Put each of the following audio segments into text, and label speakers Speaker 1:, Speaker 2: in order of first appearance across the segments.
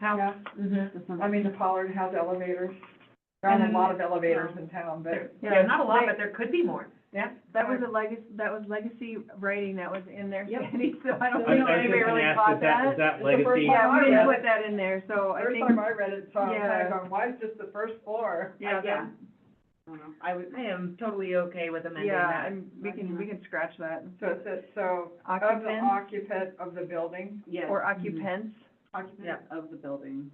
Speaker 1: How,
Speaker 2: Yeah,
Speaker 1: Mm-hmm.
Speaker 2: mhm. I mean, the Pollard has elevators, there aren't a lot of elevators in town, but,
Speaker 1: yeah, not a lot, but there could be more.
Speaker 2: yeah.
Speaker 3: That was a legacy, that was legacy writing that was in there,
Speaker 1: Yep.
Speaker 3: Sandy, so I don't think
Speaker 4: I was just
Speaker 3: anybody
Speaker 4: gonna
Speaker 3: really
Speaker 4: ask,
Speaker 3: caught
Speaker 4: is that-
Speaker 3: that.
Speaker 4: Is that
Speaker 2: It's the first
Speaker 4: legacy?
Speaker 2: time
Speaker 3: Yeah,
Speaker 2: I
Speaker 3: we
Speaker 2: read
Speaker 3: didn't
Speaker 2: it.
Speaker 3: put that in there, so I
Speaker 2: First
Speaker 3: think,
Speaker 2: time I read it, so I was
Speaker 3: Yeah.
Speaker 2: kinda going, why is just the first floor?
Speaker 3: yeah,
Speaker 1: Yeah.
Speaker 3: that-
Speaker 1: I don't know. I would, I am totally okay with amending
Speaker 3: yeah,
Speaker 1: that.
Speaker 3: and we can, we can scratch that.
Speaker 2: So it says, so, of the
Speaker 3: Occupants
Speaker 2: occupant of the building,
Speaker 1: Yes. Mm-hmm.
Speaker 3: or occupants,
Speaker 2: occupant.
Speaker 1: Yeah, of the building.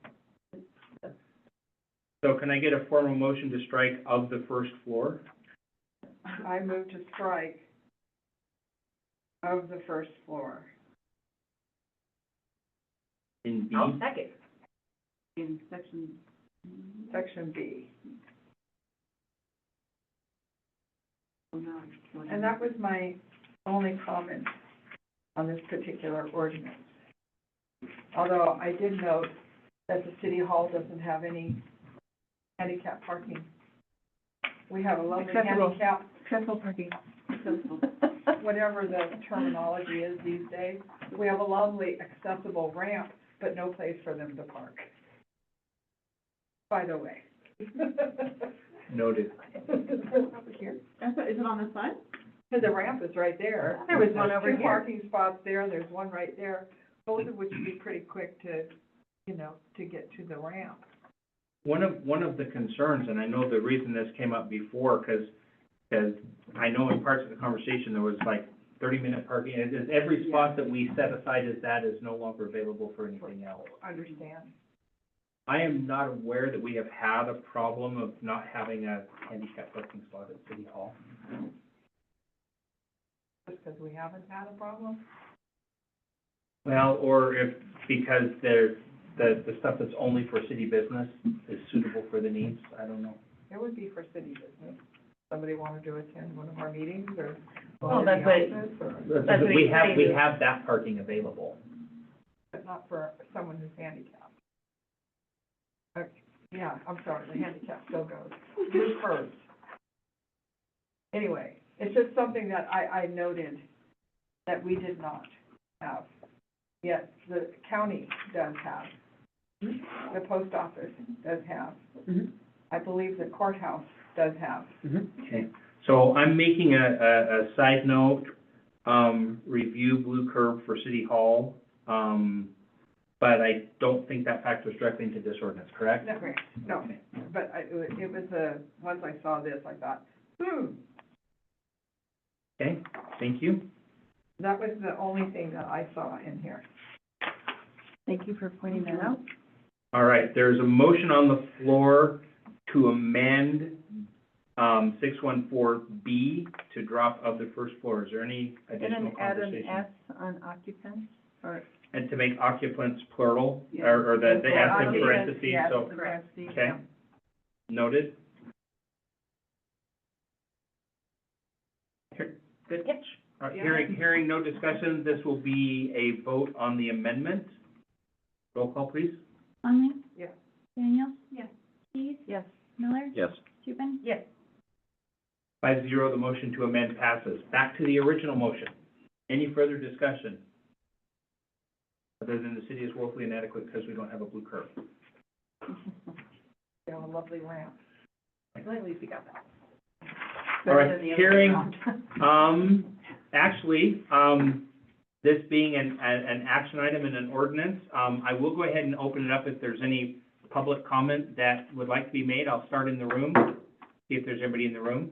Speaker 4: So can I get a formal motion to strike of the first floor?
Speaker 2: I move to strike of the first floor.
Speaker 4: In B,
Speaker 1: I'll second. In section.
Speaker 2: Section B. And
Speaker 1: oh And
Speaker 2: that was my only comment on this particular ordinance. Although I did note that the city hall doesn't have any handicap parking. We have a lovely
Speaker 3: Accessible.
Speaker 2: handicap,
Speaker 3: accessible parking.
Speaker 2: whatever the terminology is these days, we have a lovely accessible ramp, but no place for them to park. By the way.
Speaker 4: noted.
Speaker 2: Over here.
Speaker 1: Is it on this side?
Speaker 2: Because the ramp is right there.
Speaker 1: There was one over
Speaker 2: There's two
Speaker 1: here.
Speaker 2: parking spots there, there's one right there, both of which would be pretty quick to, you know, to get to the ramp.
Speaker 4: One of, one of the concerns, and I know the reason this came up before, because, I know in parts of the conversation, there was like thirty-minute parking, and it- every spot that we set aside as that is no longer available for anything else.
Speaker 2: Understand?
Speaker 4: I am not aware that we have had a problem of not having a handicap parking spot at City Hall.
Speaker 2: Just because we haven't had a problem.
Speaker 4: Well, or if, because they're, the, the stuff that's only for city business is suitable for the needs, I don't know.
Speaker 2: It would be for city business. Somebody wanted to attend one of our meetings or
Speaker 1: Well,
Speaker 2: go to
Speaker 1: that's
Speaker 2: the
Speaker 1: what-
Speaker 2: office or,
Speaker 1: That's what
Speaker 4: We have, we
Speaker 1: exciting.
Speaker 4: have that parking available.
Speaker 2: but not for someone who's handicapped. Okay, Yeah, I'm sorry, the handicap still goes. Who's first? Anyway, it's just something that I, I noted that we did not have. Yet the county does have. The post office does have.
Speaker 1: Mhm.
Speaker 2: I believe the courthouse does have.
Speaker 1: Mm-hmm.
Speaker 4: Okay, so I'm making a, a, a side note, um, review Blue Curb for City Hall. Um, but I don't think that factors directly into this ordinance, correct?
Speaker 2: No, correct. No,
Speaker 4: Okay.
Speaker 2: but I, it wa- it was a, once I saw this, I thought, hmm,
Speaker 4: Okay, thank you.
Speaker 2: that was the only thing that I saw in here.
Speaker 3: Thank you for pointing that out.
Speaker 4: All right, there's a motion on the floor to amend, um, six one four B to drop of the first floor. Is there any
Speaker 3: And then
Speaker 4: additional
Speaker 3: add an
Speaker 4: conversation?
Speaker 3: S on occupants, or.
Speaker 4: And to make occupants plural,
Speaker 3: Yeah.
Speaker 4: or, or the, the S in
Speaker 3: Occupants,
Speaker 4: parentheses,
Speaker 3: yes,
Speaker 4: so,
Speaker 3: in
Speaker 1: Correct.
Speaker 3: parentheses,
Speaker 4: okay,
Speaker 3: yeah.
Speaker 4: noted. Here- Good catch. All right, hearing, hearing no discussion, this will be a vote on the amendment. Roll call, please.
Speaker 5: Conley?
Speaker 2: Yes.
Speaker 5: Daniel?
Speaker 1: Yes.
Speaker 5: Keys?
Speaker 3: Yes.
Speaker 5: Miller?
Speaker 4: Yes.
Speaker 5: Tupin?
Speaker 1: Yes.
Speaker 4: Five zero, the motion to amend passes. Back to the original motion. Any further discussion? Other than the city is woefully inadequate because we don't have a blue curve.
Speaker 2: They have a lovely ramp.
Speaker 1: At least we got that.
Speaker 4: All right,
Speaker 1: Better than the other
Speaker 4: hearing-
Speaker 1: round.
Speaker 4: Um, actually, um, this being an, an, an action item and an ordinance, um, I will go ahead and open it up if there's any public comment that would like to be made. I'll start in the room, see if there's anybody in the room.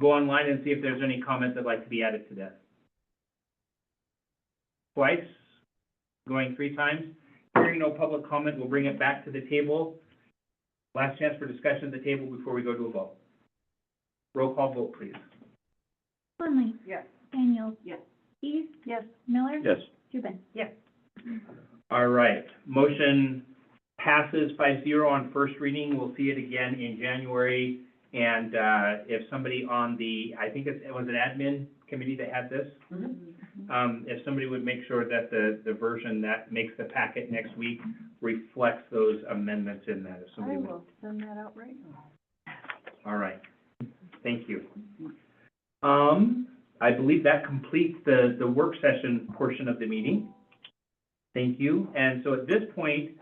Speaker 4: Go online and see if there's any comment that'd like to be added to this. Twice, going three times. Hearing no public comment, we'll bring it back to the table. Last chance for discussion at the table before we go to a vote. Roll call vote, please.
Speaker 5: Conley?
Speaker 2: Yes.
Speaker 5: Daniel?
Speaker 1: Yes.
Speaker 5: Keys?
Speaker 3: Yes.
Speaker 5: Miller?
Speaker 4: Yes.
Speaker 5: Tupin?
Speaker 4: All right, motion passes five zero on first reading, we'll see it again in January. And, uh, if somebody on the, I think it's, it was an admin committee that had this,
Speaker 1: Mm-hmm.
Speaker 3: Mm-hmm.
Speaker 4: um, if somebody would make sure that the, the version that makes the packet next week reflects those amendments in that, if
Speaker 3: I
Speaker 4: somebody would.
Speaker 3: will send that out right now.
Speaker 4: All right, thank you.
Speaker 3: Mm-hmm.
Speaker 4: Um, I believe that completes the, the work session portion of the meeting. Thank you, and so at this point,